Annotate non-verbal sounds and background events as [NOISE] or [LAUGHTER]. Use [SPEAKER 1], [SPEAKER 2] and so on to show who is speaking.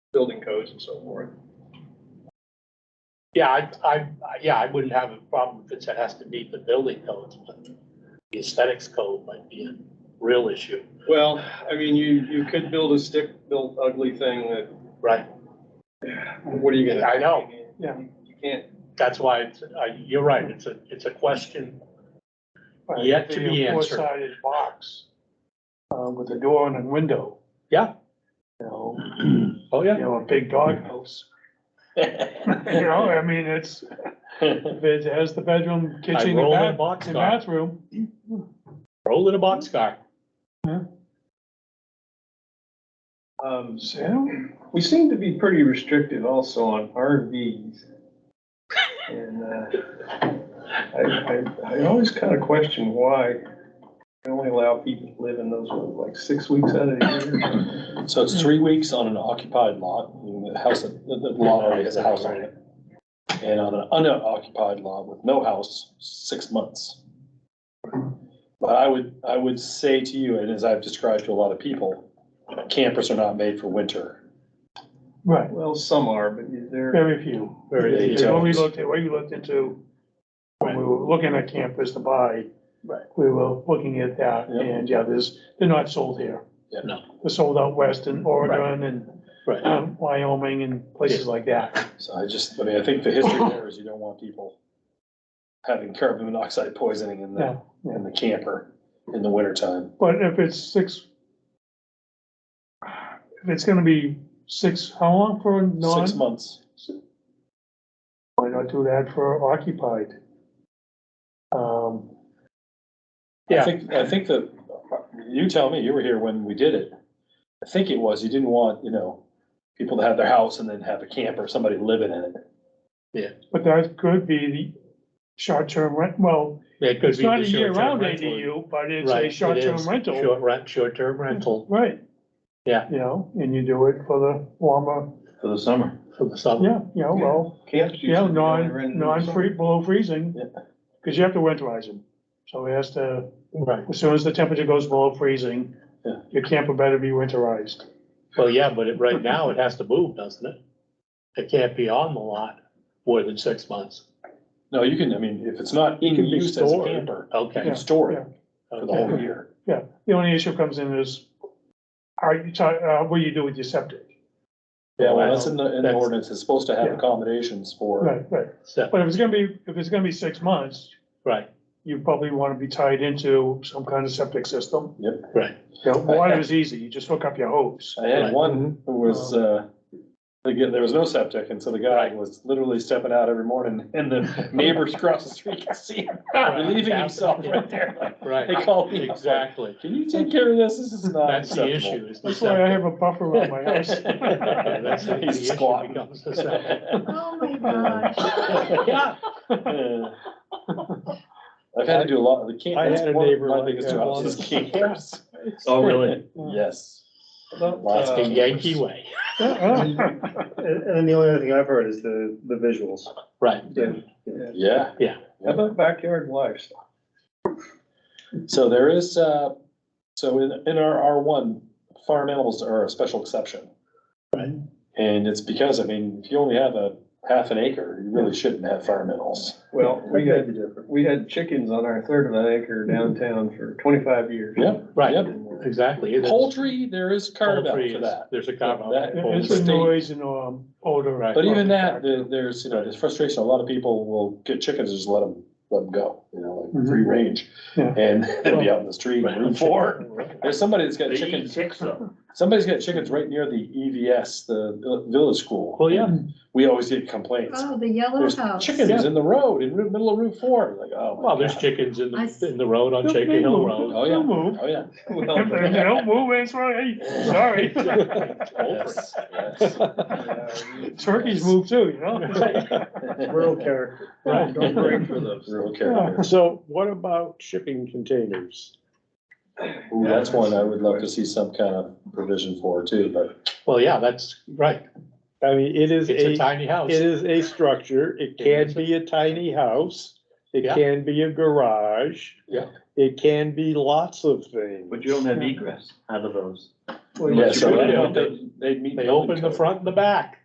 [SPEAKER 1] building codes and so forth. Yeah, I, I, I- yeah, I wouldn't have a problem if it said has to meet the building codes, but the aesthetics code might be a real issue.
[SPEAKER 2] Well, I mean, you, you could build a stick-built ugly thing that,
[SPEAKER 1] Right.
[SPEAKER 2] what are you gonna?
[SPEAKER 1] I know.
[SPEAKER 3] Yeah.
[SPEAKER 2] You can't,
[SPEAKER 1] That's why it's, I, you're right, it's a, it's a question. Yet to be answered.
[SPEAKER 3] Four sided box, uh, with a door and a window.
[SPEAKER 1] Yeah.
[SPEAKER 3] You know,
[SPEAKER 1] Oh,
[SPEAKER 3] you know, a
[SPEAKER 1] [LAUGHS]
[SPEAKER 3] big doghouse, you know, I mean, it's, it has the bedroom,
[SPEAKER 1] I
[SPEAKER 3] kitchen,
[SPEAKER 1] roll in a
[SPEAKER 3] and bath, and
[SPEAKER 1] boxcar,
[SPEAKER 3] bathroom.
[SPEAKER 1] roll in a boxcar.
[SPEAKER 2] um,
[SPEAKER 3] So,
[SPEAKER 2] we seem to be pretty restrictive also on RVs. And, uh, I, I, I always kind of question why we only allow people to live in those, what, like, six weeks out of the year.
[SPEAKER 4] So it's three weeks on an occupied lot, meaning the house, the, the lot already has a house on it. And on an unoccupied lot with no house, six months. But I would, I would say to you, and as I've described to a lot of people, campers are not made for winter.
[SPEAKER 3] right,
[SPEAKER 2] Well, some are, but they're,
[SPEAKER 3] very few.
[SPEAKER 4] Very
[SPEAKER 3] It's When we looked at, what we looked into, when we were looking at campus to buy.
[SPEAKER 1] Right.
[SPEAKER 3] We were looking at that,
[SPEAKER 4] Yeah.
[SPEAKER 3] and yeah, there's, they're not sold here.
[SPEAKER 4] Yeah.
[SPEAKER 1] No.
[SPEAKER 3] They're sold out west in Oregon and
[SPEAKER 1] Right.
[SPEAKER 3] um, Wyoming and places like that.
[SPEAKER 4] So I just, I mean, I think the history there is you don't want people having carbon monoxide poisoning in the,
[SPEAKER 3] Yeah, yeah.
[SPEAKER 4] in the camper in the wintertime.
[SPEAKER 3] But if it's six, if it's gonna be six, how long for a non,
[SPEAKER 4] Six months.
[SPEAKER 3] why not do that for occupied? Um,
[SPEAKER 4] I
[SPEAKER 1] Yeah.
[SPEAKER 4] think, I think that, you tell me, you were here when we did it. I think it was, you didn't want, you know, people to have their house and then have a camper, somebody living in it.
[SPEAKER 3] but that could be the short-term rent, well,
[SPEAKER 1] It could
[SPEAKER 3] it's
[SPEAKER 1] be the
[SPEAKER 3] not a year-round
[SPEAKER 1] short-term rental.
[SPEAKER 3] ADU, but it's
[SPEAKER 1] Right,
[SPEAKER 3] a
[SPEAKER 1] it
[SPEAKER 3] short-term
[SPEAKER 1] is.
[SPEAKER 3] rental.
[SPEAKER 1] Short rent, short-term rental
[SPEAKER 3] Right.
[SPEAKER 1] Yeah.
[SPEAKER 3] You know, and you do it for the warmer,
[SPEAKER 4] For the summer.
[SPEAKER 1] for the summer.
[SPEAKER 3] yeah, you know, well,
[SPEAKER 2] camps.
[SPEAKER 3] you know,
[SPEAKER 2] usually only rent
[SPEAKER 3] non,
[SPEAKER 2] in the
[SPEAKER 3] non-free, below freezing.
[SPEAKER 4] Yeah.
[SPEAKER 3] Cause you have to winterize them, so it has to.
[SPEAKER 1] Right.
[SPEAKER 3] As soon as the temperature goes below freezing,
[SPEAKER 4] Yeah.
[SPEAKER 3] your camper better be winterized.
[SPEAKER 1] Well, yeah, but it, right now it has to move, doesn't it? It can't be on the lot more than six months.
[SPEAKER 4] No, you can, I mean, if it's not in
[SPEAKER 1] It can be
[SPEAKER 4] use as a
[SPEAKER 1] stored.
[SPEAKER 4] camper, you
[SPEAKER 1] Okay.
[SPEAKER 4] can store
[SPEAKER 3] yeah.
[SPEAKER 4] it for the
[SPEAKER 1] okay.
[SPEAKER 4] whole year.
[SPEAKER 3] Yeah, the only issue comes in is, are you, ta- uh, what do you do with your septic?
[SPEAKER 4] Yeah,
[SPEAKER 1] Wow.
[SPEAKER 4] well, that's in the, in the
[SPEAKER 1] That's-
[SPEAKER 4] ordinance, it's supposed to have
[SPEAKER 3] Yeah.
[SPEAKER 4] accommodations for,
[SPEAKER 3] Right, right,
[SPEAKER 1] So,
[SPEAKER 3] but if it's gonna be, if it's gonna be six months,
[SPEAKER 1] right,
[SPEAKER 3] you probably wanna be tied into some kind of septic system.
[SPEAKER 1] right.
[SPEAKER 3] You know, water is easy, you just hook up your hose.
[SPEAKER 4] I had
[SPEAKER 1] Right.
[SPEAKER 4] one who was, uh, again, there was no septic, and so the guy
[SPEAKER 1] Right.
[SPEAKER 4] was literally stepping out every morning, and the neighbors across the street could see him relieving himself right there, like, They
[SPEAKER 1] Right,
[SPEAKER 4] call me. Uh,
[SPEAKER 1] exactly.
[SPEAKER 4] Can you take care of this? This is not
[SPEAKER 1] That's the
[SPEAKER 4] acceptable. Oh
[SPEAKER 1] issue. is the
[SPEAKER 3] That's why I
[SPEAKER 4] [LAUGHS]
[SPEAKER 1] septic.
[SPEAKER 3] have a buffer around my house.
[SPEAKER 1] Yeah, [LAUGHS] That's the the
[SPEAKER 4] He's
[SPEAKER 1] issue
[SPEAKER 4] squatting.
[SPEAKER 1] becomes the septic.
[SPEAKER 5] Oh my
[SPEAKER 3] [LAUGHS]
[SPEAKER 5] gosh.
[SPEAKER 1] Yeah,
[SPEAKER 4] I've had to do a lot of the camp.
[SPEAKER 1] I
[SPEAKER 4] that's
[SPEAKER 1] had a
[SPEAKER 4] one of
[SPEAKER 1] neighbor
[SPEAKER 4] My
[SPEAKER 1] like
[SPEAKER 4] biggest
[SPEAKER 1] that.
[SPEAKER 4] jobs is
[SPEAKER 1] [LAUGHS]
[SPEAKER 4] camps.
[SPEAKER 1] Oh, really?
[SPEAKER 4] Yes.
[SPEAKER 2] About,
[SPEAKER 4] Lots
[SPEAKER 2] uh,
[SPEAKER 1] That's the Yankee way.
[SPEAKER 3] uh,
[SPEAKER 6] And, and the only other thing I've heard is the, the visuals.
[SPEAKER 1] Right.
[SPEAKER 2] Yeah.
[SPEAKER 4] Yeah,
[SPEAKER 2] How about backyard livestock?
[SPEAKER 4] so there is, uh, so in, in our R one, farm animals are a special exception.
[SPEAKER 1] Right.
[SPEAKER 4] And it's because, I mean, if you only have a half an acre, you really shouldn't have farm animals.
[SPEAKER 2] Well, we
[SPEAKER 6] That'd
[SPEAKER 2] had,
[SPEAKER 6] be different.
[SPEAKER 2] we had chickens on our third of an acre downtown for twenty-five years.
[SPEAKER 4] Yep,
[SPEAKER 2] [LAUGHS]
[SPEAKER 1] Right,
[SPEAKER 4] yep.
[SPEAKER 2] And,
[SPEAKER 1] exactly. It is-
[SPEAKER 4] Poultry, there is carve out
[SPEAKER 1] poultry
[SPEAKER 4] for
[SPEAKER 1] is-
[SPEAKER 4] that.
[SPEAKER 1] There's a carve out.
[SPEAKER 4] That-
[SPEAKER 3] It's the noise and, um, odor.
[SPEAKER 1] Right.
[SPEAKER 4] But even that, there, there's, you know, there's frustration. A lot of people will get chickens, and just let them, let them go, you know, like free range.
[SPEAKER 3] Yeah.
[SPEAKER 4] And [LAUGHS] they'd be out in the street,
[SPEAKER 1] Mm-hmm. Right.
[SPEAKER 4] room four. There's somebody that's got
[SPEAKER 1] They eat
[SPEAKER 4] chickens,
[SPEAKER 1] chicks though.
[SPEAKER 4] somebody's got chickens right near the EVS, the vill- village school.
[SPEAKER 1] Well, yeah.
[SPEAKER 4] We always get complaints.
[SPEAKER 5] Oh, the yellow
[SPEAKER 4] There's
[SPEAKER 5] house.
[SPEAKER 4] chickens in the road, in the middle of room four, like, oh. my
[SPEAKER 1] Well, there's
[SPEAKER 4] God.
[SPEAKER 1] chickens in
[SPEAKER 5] I
[SPEAKER 1] the,
[SPEAKER 5] see.
[SPEAKER 1] in the road on
[SPEAKER 3] They'll-
[SPEAKER 1] Shaker
[SPEAKER 3] they'll
[SPEAKER 1] Hill
[SPEAKER 3] move.
[SPEAKER 1] Road.
[SPEAKER 4] Oh, yeah.
[SPEAKER 3] They'll move.
[SPEAKER 4] Oh, yeah.
[SPEAKER 3] If they
[SPEAKER 2] well,
[SPEAKER 3] don't move, it's right,
[SPEAKER 1] [LAUGHS]
[SPEAKER 3] sorry.
[SPEAKER 4] Yes, yes.
[SPEAKER 2] yeah,
[SPEAKER 4] [LAUGHS]
[SPEAKER 3] Turkeys move too, you know? [LAUGHS]
[SPEAKER 6] Rural character.
[SPEAKER 1] Right.
[SPEAKER 2] Don't break for those.
[SPEAKER 4] Real characters.
[SPEAKER 6] So what about shipping containers?
[SPEAKER 4] Ooh, That's one I would love to see some kind of provision for too, but
[SPEAKER 1] Well, yeah, that's right.
[SPEAKER 6] I mean, it is
[SPEAKER 1] It's a
[SPEAKER 6] a,
[SPEAKER 1] tiny house.
[SPEAKER 6] it is a structure. It can be a tiny house. It
[SPEAKER 1] Yeah.
[SPEAKER 6] can be a garage.
[SPEAKER 4] Yeah.
[SPEAKER 6] It can be lots of things.
[SPEAKER 7] But you don't have egress out of those.
[SPEAKER 1] But
[SPEAKER 4] Yeah,
[SPEAKER 1] you
[SPEAKER 4] so
[SPEAKER 1] would
[SPEAKER 4] I
[SPEAKER 1] have-
[SPEAKER 4] don't think they'd meet
[SPEAKER 1] They
[SPEAKER 4] building
[SPEAKER 2] uh,
[SPEAKER 1] open the
[SPEAKER 4] code.
[SPEAKER 1] front and the back.